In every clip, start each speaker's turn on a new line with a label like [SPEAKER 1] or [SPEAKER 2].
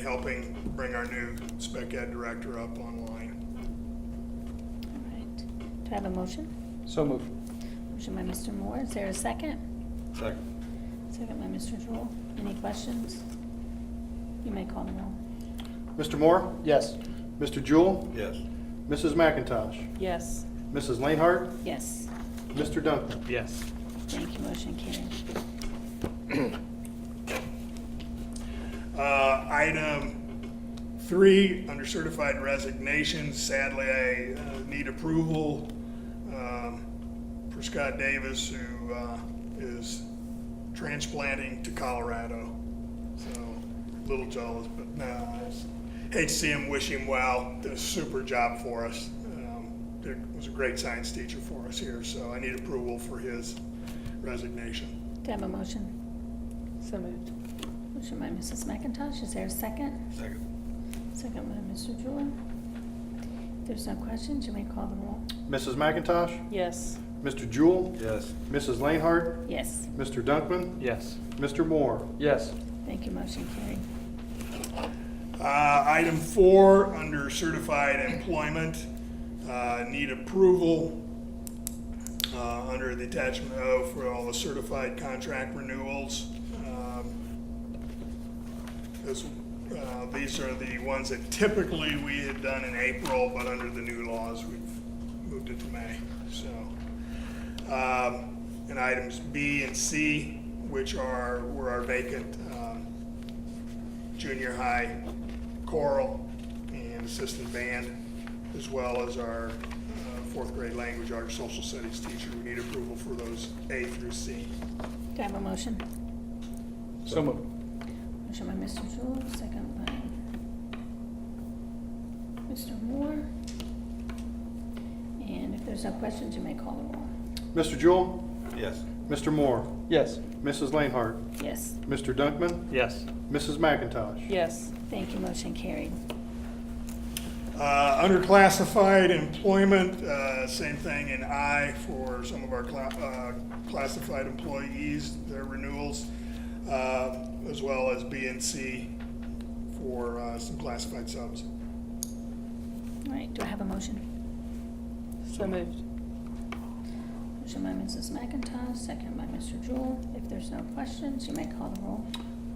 [SPEAKER 1] helping bring our new spec ed director up online.
[SPEAKER 2] All right. Do I have a motion?
[SPEAKER 3] So move.
[SPEAKER 2] Motion by Mr. Moore. Is there a second?
[SPEAKER 3] Second.
[SPEAKER 2] Second by Mr. Joel. Any questions? You may call the roll.
[SPEAKER 4] Mr. Moore?
[SPEAKER 3] Yes.
[SPEAKER 4] Mr. Jewell?
[SPEAKER 5] Yes.
[SPEAKER 4] Mrs. McIntosh?
[SPEAKER 6] yes,
[SPEAKER 4] Mrs. Lainhart?
[SPEAKER 2] Yes.
[SPEAKER 4] Mr. Duncan?
[SPEAKER 3] Yes.
[SPEAKER 2] Thank you. Motion carried.
[SPEAKER 1] Uh, Item three, under certified resignations, sadly, I uh, need approval um, for Scott Davis, who uh, is transplanting to Colorado. So, a little jealous, but no, I just hate to see him, wish him well, did a super job for us. Um, did- Was a great science teacher for us here, so I need approval for his resignation.
[SPEAKER 2] Do I have a motion?
[SPEAKER 6] so moved,
[SPEAKER 2] Motion by Mrs. McIntosh. Is there a second?
[SPEAKER 5] Second.
[SPEAKER 2] Second by Mr. Joel. If there's no questions, you may call the roll.
[SPEAKER 4] Mrs. McIntosh?
[SPEAKER 6] yes,
[SPEAKER 4] Mr. Jewell?
[SPEAKER 5] Yes.
[SPEAKER 4] Mrs. Lainhart?
[SPEAKER 2] Yes.
[SPEAKER 4] Mr. Dunkman?
[SPEAKER 3] Yes.
[SPEAKER 4] Mr. Moore?
[SPEAKER 3] Yes.
[SPEAKER 2] Thank you. Motion carried.
[SPEAKER 1] Uh, Item four, under certified employment, uh, need approval uh, under the attachment O for all the certified contract renewals. Um, This, uh, These are the ones that typically we had done in April, but under the new laws, we've moved it to May, so. Um, And items B and C, which are, were our vacant um, junior high choral and assistant band, as well as our uh, fourth grade language arts social studies teacher. We need approval for those A through C.
[SPEAKER 2] Do I have a motion?
[SPEAKER 3] So move.
[SPEAKER 2] Motion by Mr. Jewell, second by Mr. Moore. And if there's no questions, you may call the roll.
[SPEAKER 4] Mr. Jewell?
[SPEAKER 5] Yes.
[SPEAKER 4] Mr. Moore?
[SPEAKER 3] Yes.
[SPEAKER 4] Mrs. Lainhart?
[SPEAKER 2] Yes,
[SPEAKER 4] Mr. Dunkman?
[SPEAKER 3] Yes.
[SPEAKER 4] Mrs. McIntosh?
[SPEAKER 6] yes,
[SPEAKER 2] thank you, motion carried.
[SPEAKER 1] Uh, Under classified employment, uh, same thing in I for some of our cla- uh, classified employees, their renewals, uh, as well as B and C for uh, some classified subs.
[SPEAKER 2] All right, do I have a motion?
[SPEAKER 6] so moved,
[SPEAKER 2] Motion by Mrs. McIntosh, second by Mr. Jewell. If there's no questions, you may call the roll.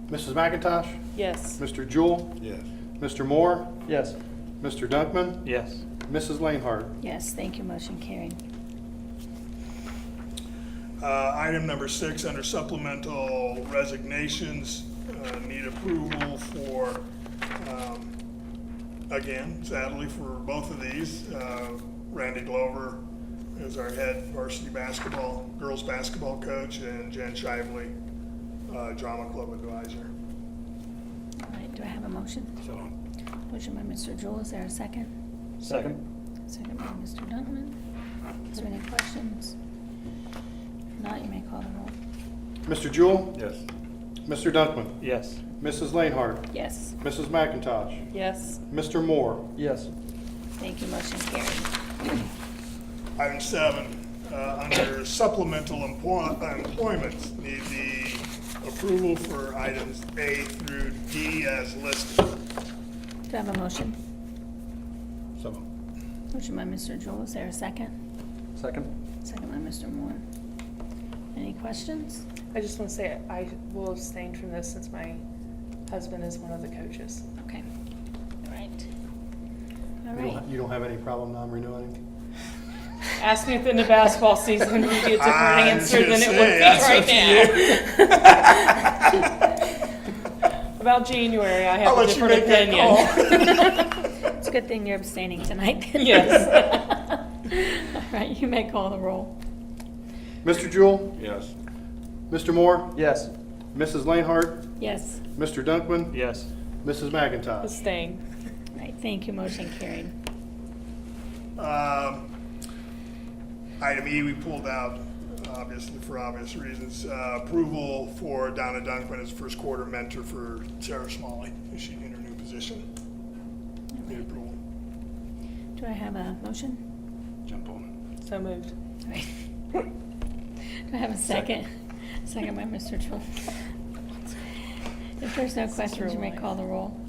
[SPEAKER 4] Mrs. McIntosh?
[SPEAKER 6] yes,
[SPEAKER 4] Mr. Jewell?
[SPEAKER 5] Yes.
[SPEAKER 4] Mr. Moore?
[SPEAKER 3] Yes.
[SPEAKER 4] Mr. Dunkman?
[SPEAKER 3] Yes.
[SPEAKER 4] Mrs. Lainhart?
[SPEAKER 2] Yes, thank you, motion carried.
[SPEAKER 1] Uh, Item number six, under supplemental resignations, uh, need approval for, um, again, sadly for both of these. uh, Randy Glover is our head varsity basketball, girls' basketball coach, and Jen Shively, uh, drama club advisor.
[SPEAKER 2] All right, do I have a motion?
[SPEAKER 5] So moved.
[SPEAKER 2] Motion by Mr. Jewell, is there a second?
[SPEAKER 3] Second.
[SPEAKER 2] Second by Mr. Dunkman. Is there any questions? If not, you may call the roll.
[SPEAKER 4] Mr. Jewell?
[SPEAKER 5] Yes.
[SPEAKER 4] Mr. Dunkman?
[SPEAKER 3] Yes.
[SPEAKER 4] Mrs. Lainhart?
[SPEAKER 2] Yes,
[SPEAKER 4] Mrs. McIntosh?
[SPEAKER 6] yes,
[SPEAKER 4] Mr. Moore?
[SPEAKER 3] Yes.
[SPEAKER 2] thank you, motion carried.
[SPEAKER 1] Item seven, uh, under supplemental emplo- uh, employment, need the approval for items A through D as listed.
[SPEAKER 2] Do I have a motion?
[SPEAKER 5] So moved.
[SPEAKER 2] Motion by Mr. Jewell, is there a second?
[SPEAKER 3] Second.
[SPEAKER 2] Second by Mr. Moore. Any questions?
[SPEAKER 7] I just want to say I will abstain from this since my husband is one of the coaches.
[SPEAKER 2] Okay, all right. All
[SPEAKER 4] You don't
[SPEAKER 2] right,
[SPEAKER 4] ha- You don't have any problem non-renewing?
[SPEAKER 7] Ask me at the end of basketball season, we get a different
[SPEAKER 1] I was
[SPEAKER 7] answer
[SPEAKER 1] gonna
[SPEAKER 7] than it
[SPEAKER 1] say,
[SPEAKER 7] would be
[SPEAKER 1] that's up
[SPEAKER 7] right
[SPEAKER 1] to
[SPEAKER 7] now. About January, I
[SPEAKER 1] I'll
[SPEAKER 7] have a
[SPEAKER 1] let you
[SPEAKER 7] different
[SPEAKER 1] make that
[SPEAKER 7] opinion.
[SPEAKER 2] it's a good thing you're abstaining tonight.
[SPEAKER 7] Yes.
[SPEAKER 2] All right, you may call the roll.
[SPEAKER 4] Mr. Jewell?
[SPEAKER 5] Yes.
[SPEAKER 4] Mr. Moore?
[SPEAKER 3] Yes.
[SPEAKER 4] Mrs. Lainhart?
[SPEAKER 2] Yes,
[SPEAKER 4] Mr. Dunkman?
[SPEAKER 3] Yes.
[SPEAKER 4] Mrs. McIntosh?
[SPEAKER 7] Abstain.
[SPEAKER 2] all right, thank you, motion carried.
[SPEAKER 1] Um, Item E, we pulled out, obviously, for obvious reasons. Uh, Approval for Donna Dunkman as first quarter mentor for Sarah Smalley, is she in her new position?
[SPEAKER 2] All
[SPEAKER 1] Need
[SPEAKER 2] right,
[SPEAKER 1] approval.
[SPEAKER 2] Do I have a motion?
[SPEAKER 5] Jump on
[SPEAKER 7] So moved.
[SPEAKER 2] All right. Do I have a second? Second by Mr. Jewell. If there's no questions, you may call the roll.